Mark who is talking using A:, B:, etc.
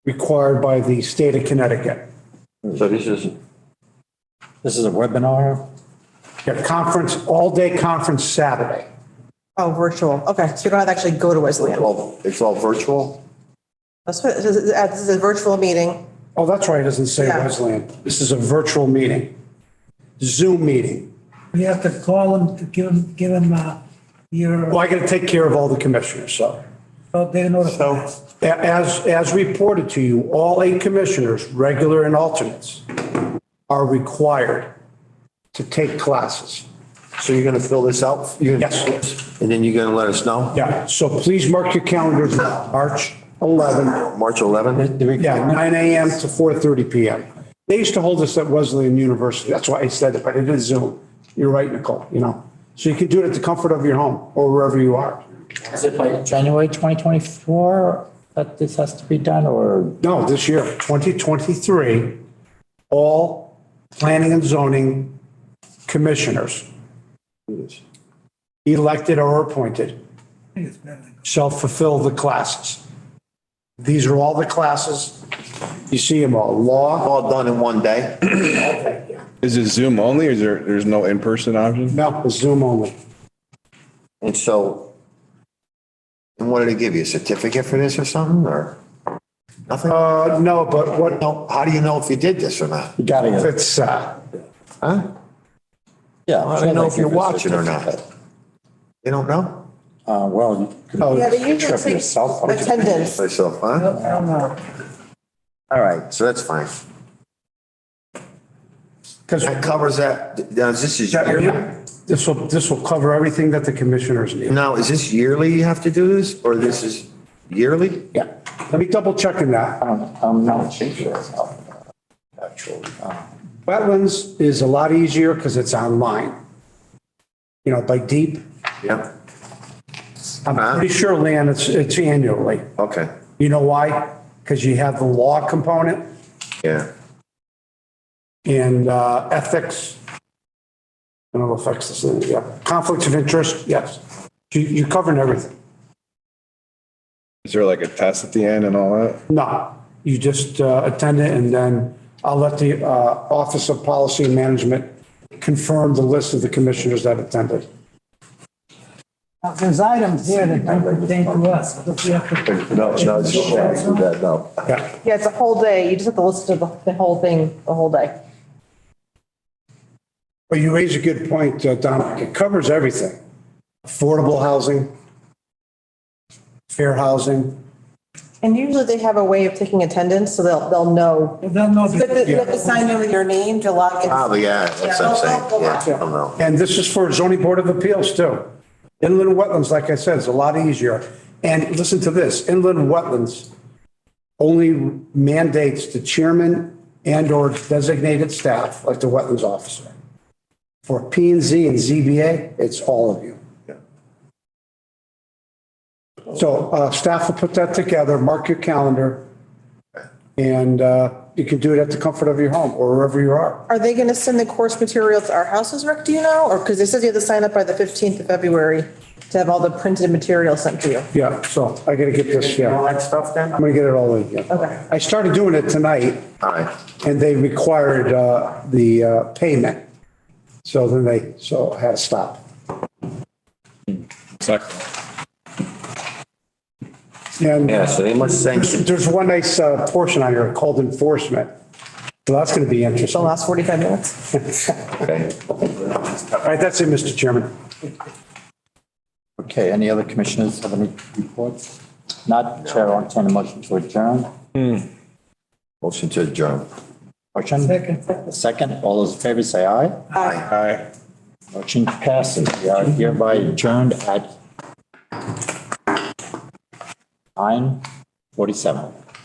A: required by the state of Connecticut.
B: So this is,
C: This is a webinar?
A: Yeah, conference, all-day conference Saturday.
D: Oh, virtual. Okay, so you don't have to actually go to Wesleyan.
B: well, it's all virtual?
D: That's what, this is, uh, this is a virtual meeting.
A: Oh, that's right, it doesn't say
D: Yeah.
A: Wesleyan. This is a virtual meeting, Zoom meeting.
E: We have to call them to give them, give them, uh, your,
A: Well, I got to take care of all the commissioners, so.
E: oh, they notify
A: So
E: us.
A: a- as, as reported to you, all eight commissioners, regular and alternates, are required to take classes.
B: So you're going to fill this out? You're gonna-
A: Yes.
B: And then you're going to let us know?
A: Yeah, so please mark your calendars, March 11,
B: March 11th?
C: The re-
A: yeah, 9 AM to 4:30 PM. They used to hold this at Wesleyan University, that's why I said it, but it is Zoom. You're right, Nicole, you know. So you can do it at the comfort of your home or wherever you are.
C: Is it by January 2024 that this has to be done or?
A: No, this year, 2023, all planning and zoning commissioners, elected or appointed,
E: I think it's better than-
A: shall fulfill the classes. These are all the classes. You see them all, law,
B: All done in one day?
F: Is it Zoom only or is there, there's no in-person option?
A: no, Zoom only.
B: And so, and what did they give you? A certificate for this or something or nothing?
A: Uh, no, but what,
B: No, how do you know if you did this or not?
C: You gotta get.
A: it's, uh,
B: Huh?
C: Yeah.
B: How do you know if you're watching or not? You don't know?
C: Uh, well.
A: Oh,
D: Yeah, they
C: Trip
D: usually
C: yourself
D: take
C: up.
D: attendance.
B: Myself, huh?
E: I don't know.
B: All right, so that's fine.
A: because
B: That covers that. Now, is this is yearly?
A: this will, this will cover everything that the commissioners need.
B: Now, is this yearly you have to do this or this is yearly?
A: Yeah, let me double check on that.
C: I'm not sure. Actually.
A: Wetlands is a lot easier because it's online. You know, by deep,
B: Yep.
A: I'm pretty sure land, it's, it's annually.
B: Okay,
A: You know why? Because you have the law component
B: yeah.
A: and uh, ethics. I don't know if ethics is in it, yeah. Conflicts of interest, yes. You, you're covering everything.
F: Is there like a test at the end and all that?
A: No, you just uh, attend it and then I'll let the uh, Office of Policy and Management confirm the list of the commissioners that attended.
E: Now, There's items here that don't pertain to us, but we have to.
B: No, no, it's okay, do that, no.
A: Yeah,
D: Yeah, it's a whole day. You just have to listen to the, the whole thing, the whole day.
A: but you raise a good point, uh, Dominic. It covers everything. Affordable housing, fair housing.
D: And usually they have a way of taking attendance, so they'll, they'll know.
E: They'll know.
D: But they- they have to sign in with your name, to log in.
B: Probably, yeah, that's what I'm saying, yeah, I don't know.
A: And this is for zoning board of appeals too. Inland wetlands, like I said, is a lot easier. And listen to this, inland wetlands only mandates the chairman and/or designated staff, like the wetlands officer. For P and Z and ZBA, it's all of you. So uh, staff will put that together, mark your calendar, and uh, you can do it at the comfort of your home or wherever you are.
D: Are they gonna send the course material to our houses, Rick, do you know? Or, because it says you have to sign up by the fifteenth of February to have all the printed material sent to you.
A: Yeah, so I gotta get this, yeah. All that stuff then? I'm gonna get it all in, yeah.
D: Okay.
A: I started doing it tonight
B: All right,
A: and they required, uh, the, uh, payment. So then they, so I had to stop. And
B: yeah, so they must send,
A: there's there's one nice, uh, portion on here called enforcement. So that's gonna be
D: The
A: interesting. All
D: last forty-five minutes.
B: okay.
A: right, that's it, Mr. Chairman.
C: Okay, any other commissioners have any reports? Not chair on a motion to adjourn.
B: Motion to adjourn.
C: Motion? Second. Second, all those in favor say aye.
D: Aye.
F: Aye.
C: Motion passes. We are hereby adjourned at 9:47.